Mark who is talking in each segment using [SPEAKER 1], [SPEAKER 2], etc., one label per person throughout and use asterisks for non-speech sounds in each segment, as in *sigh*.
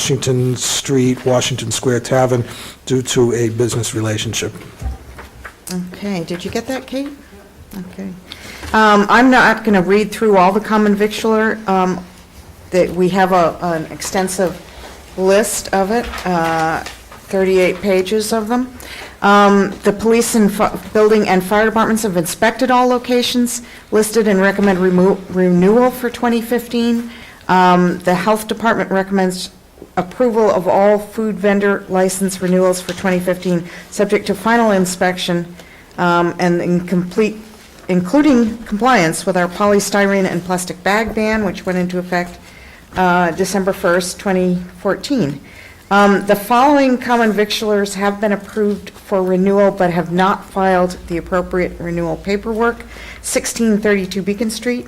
[SPEAKER 1] Washington Street, Washington Square Tavern due to a business relationship.
[SPEAKER 2] Okay, did you get that, Kate? Okay. Um, I'm not going to read through all the common victular, um, that we have a, an extensive list of it, uh, 38 pages of them. Um, The police and fi- building and fire departments have inspected all locations listed and recommend remo- renewal for 2015. Um, The health department recommends approval of all food vendor license renewals for 2015, subject to final inspection um, and in complete, including compliance with our polystyrene and plastic bag ban, which went into effect uh, December 1st, 2014. Um, The following common victulars have been approved for renewal but have not filed the appropriate renewal paperwork. 1632 Beacon Street,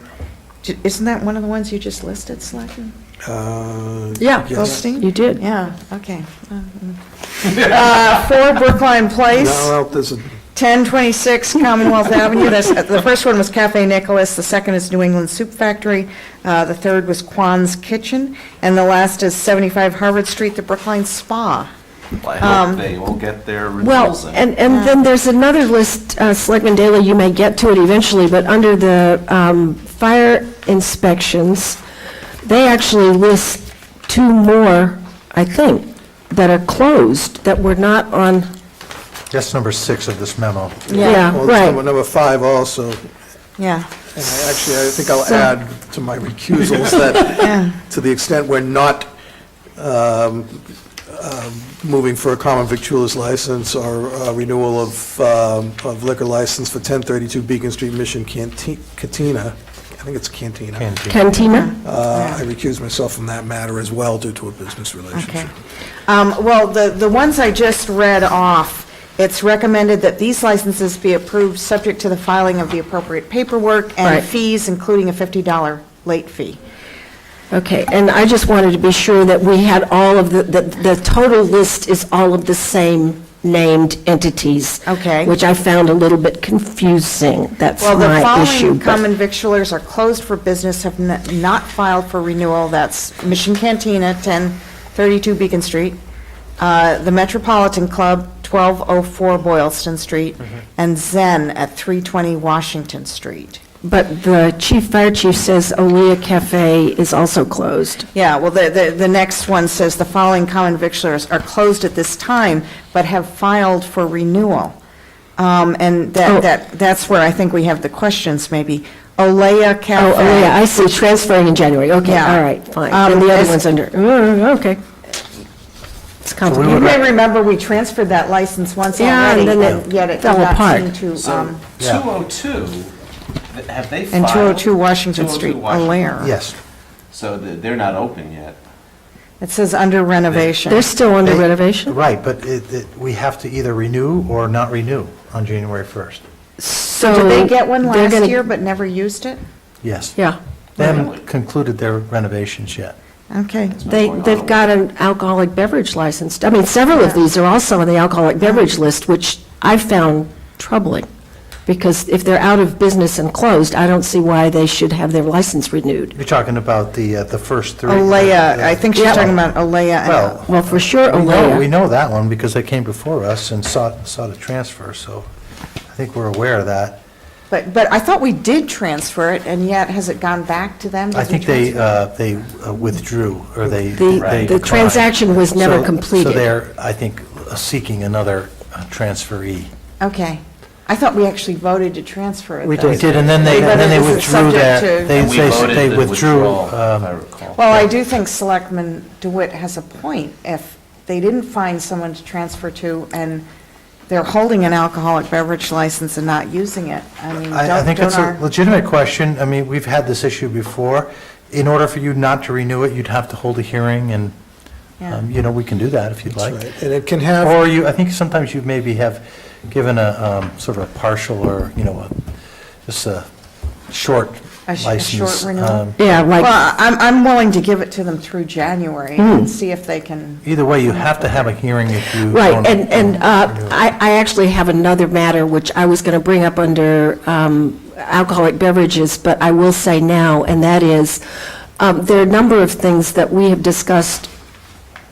[SPEAKER 2] J- isn't that one of the ones you just listed, Slacken?
[SPEAKER 1] Uh,
[SPEAKER 3] Yeah,
[SPEAKER 1] Yes.
[SPEAKER 2] Goldstein?
[SPEAKER 3] you did.
[SPEAKER 2] Yeah, okay. Uh, *laughs* Four Brookline Place.
[SPEAKER 1] Now, well, there's a-
[SPEAKER 2] 1026 Commonwealth Avenue, that's, uh, the first one was Cafe Nicholas, the second is New England Soup Factory, uh, the third was Kwan's Kitchen, and the last is 75 Harvard Street, the Brookline Spa.
[SPEAKER 4] I
[SPEAKER 2] Um,
[SPEAKER 4] hope they all get their renewals
[SPEAKER 3] Well,
[SPEAKER 4] in.
[SPEAKER 3] and, and then there's another list, uh, Selectman Daly, you may get to it eventually, but under the um, fire inspections, they actually list two more, I think, that are closed, that were not on,
[SPEAKER 5] That's number six of this memo.
[SPEAKER 3] yeah,
[SPEAKER 1] well, it's number-
[SPEAKER 3] right.
[SPEAKER 1] number five also, and
[SPEAKER 2] Yeah,
[SPEAKER 1] I actually, I think I'll add to my recusals that, to the extent we're not um, um, moving for a common victualer's license or uh, renewal of um, of liquor license for 1032 Beacon Street Mission Canti- Cantina, I think it's Cantina.
[SPEAKER 3] Cantina?
[SPEAKER 1] Uh, I recuse myself from that matter as well due to a business relationship.
[SPEAKER 2] okay. Um, Well, the, the ones I just read off, it's recommended that these licenses be approved subject to the filing of the appropriate paperwork and
[SPEAKER 3] Right.
[SPEAKER 2] fees, including a $50 late fee.
[SPEAKER 3] Okay, and I just wanted to be sure that we had all of the, that the total list is all of the same named entities.
[SPEAKER 2] Okay.
[SPEAKER 3] Which I found a little bit confusing, that's
[SPEAKER 2] Well, the
[SPEAKER 3] my issue.
[SPEAKER 2] following
[SPEAKER 3] but-
[SPEAKER 2] common victulars are closed for business, have n- not filed for renewal. That's Mission Cantina, 1032 Beacon Street, uh, the Metropolitan Club, 1204 Boylston Street, and Zen at 320 Washington Street.
[SPEAKER 3] But the chief, fire chief says Olea Cafe is also closed.
[SPEAKER 2] Yeah, well, the, the, the next one says the following common victulars are closed at this time, but have filed for renewal. Um, and
[SPEAKER 3] Oh.
[SPEAKER 2] that, that, that's where I think we have the questions, maybe. Olea
[SPEAKER 3] Oh,
[SPEAKER 2] Cafe.
[SPEAKER 3] Olea, I see, transferring in January, okay,
[SPEAKER 2] Yeah.
[SPEAKER 3] all right, fine.
[SPEAKER 2] Um,
[SPEAKER 3] And the
[SPEAKER 2] as-
[SPEAKER 3] other one's under, mm, okay. It's
[SPEAKER 2] You
[SPEAKER 3] complicated.
[SPEAKER 2] may remember, we transferred that license once
[SPEAKER 3] Yeah,
[SPEAKER 2] already,
[SPEAKER 3] and then it
[SPEAKER 2] yet it
[SPEAKER 3] fell
[SPEAKER 2] did not
[SPEAKER 3] apart.
[SPEAKER 2] seem to,
[SPEAKER 4] So
[SPEAKER 2] um,
[SPEAKER 4] 202, th- have they filed?
[SPEAKER 2] and 202 Washington
[SPEAKER 4] 202
[SPEAKER 2] Street, a
[SPEAKER 4] Washington.
[SPEAKER 2] lair.
[SPEAKER 5] Yes.
[SPEAKER 4] So the- they're not open yet.
[SPEAKER 2] It says under renovation.
[SPEAKER 3] They're still under
[SPEAKER 5] They-
[SPEAKER 3] renovation?
[SPEAKER 5] Right, but it, it, we have to either renew or not renew on January 1st.
[SPEAKER 3] So
[SPEAKER 2] Did they get one
[SPEAKER 3] they're
[SPEAKER 2] last
[SPEAKER 3] gonna-
[SPEAKER 2] year but never used it?
[SPEAKER 5] Yes.
[SPEAKER 3] Yeah.
[SPEAKER 5] They haven't concluded their renovations yet.
[SPEAKER 2] Okay.
[SPEAKER 3] They,
[SPEAKER 4] going on
[SPEAKER 3] they've
[SPEAKER 4] over
[SPEAKER 3] got an alcoholic beverage license. I mean, several of these are also on the alcoholic beverage list, which I found troubling, because if they're out of business and closed, I don't see why they should have their license renewed.
[SPEAKER 5] You're talking about the, uh, the first three. Uh,
[SPEAKER 2] Olea, I think she's
[SPEAKER 3] Yeah.
[SPEAKER 2] talking about Olea. and-
[SPEAKER 5] Well,
[SPEAKER 3] Well, for sure,
[SPEAKER 5] we know,
[SPEAKER 3] Olea.
[SPEAKER 5] we know that one because they came before us and sought, sought a transfer, so I think we're aware of that.
[SPEAKER 2] But, but I thought we did transfer it, and yet has it gone back to them? Did
[SPEAKER 5] I
[SPEAKER 2] we
[SPEAKER 5] think they,
[SPEAKER 2] transfer it?
[SPEAKER 5] uh, they uh, withdrew, or they.
[SPEAKER 3] The-
[SPEAKER 5] they
[SPEAKER 3] the
[SPEAKER 5] declined.
[SPEAKER 3] transaction was never
[SPEAKER 5] So-
[SPEAKER 3] completed.
[SPEAKER 5] So they're, I think, seeking another uh, transferee.
[SPEAKER 2] Okay. I thought we actually voted to transfer it.
[SPEAKER 5] uh, We
[SPEAKER 2] though.
[SPEAKER 5] did, and then they,
[SPEAKER 2] We
[SPEAKER 5] and then they
[SPEAKER 2] voted this is
[SPEAKER 5] withdrew
[SPEAKER 2] subject
[SPEAKER 5] that,
[SPEAKER 2] to-
[SPEAKER 5] they,
[SPEAKER 4] And we voted
[SPEAKER 5] they
[SPEAKER 4] the
[SPEAKER 5] withdrew,
[SPEAKER 4] withdrawal, if
[SPEAKER 5] um,
[SPEAKER 4] I recall.
[SPEAKER 2] Well, I do think Selectman DeWitt has a point. If they didn't find someone to transfer to and they're holding an alcoholic beverage license and not using it, I mean,
[SPEAKER 5] I, I
[SPEAKER 2] Mm, don't,
[SPEAKER 5] think it's
[SPEAKER 2] don't
[SPEAKER 5] a
[SPEAKER 2] our...
[SPEAKER 5] legitimate question, I mean, we've had this issue before. In order for you not to renew it, you'd have to hold a hearing, and,
[SPEAKER 2] Yeah.
[SPEAKER 5] um, you know, we can do that if you'd
[SPEAKER 1] That's
[SPEAKER 5] like.
[SPEAKER 1] right. And it can have.
[SPEAKER 5] Or you, I think sometimes you maybe have given a, um, sort of a partial or, you know, a- just a short
[SPEAKER 2] A sh- a short
[SPEAKER 5] license.
[SPEAKER 2] renewal?
[SPEAKER 5] um,
[SPEAKER 3] Yeah,
[SPEAKER 2] Well,
[SPEAKER 3] like,
[SPEAKER 2] I'm, I'm willing to give it to them through January and see if they can...
[SPEAKER 5] Either way, you have to have a hearing if you.
[SPEAKER 3] right,
[SPEAKER 5] don't-
[SPEAKER 3] and, and uh, I, I actually have another matter which I was going to bring up under um, alcoholic beverages, but I will say now, and that is, um, there are a number of things that we have discussed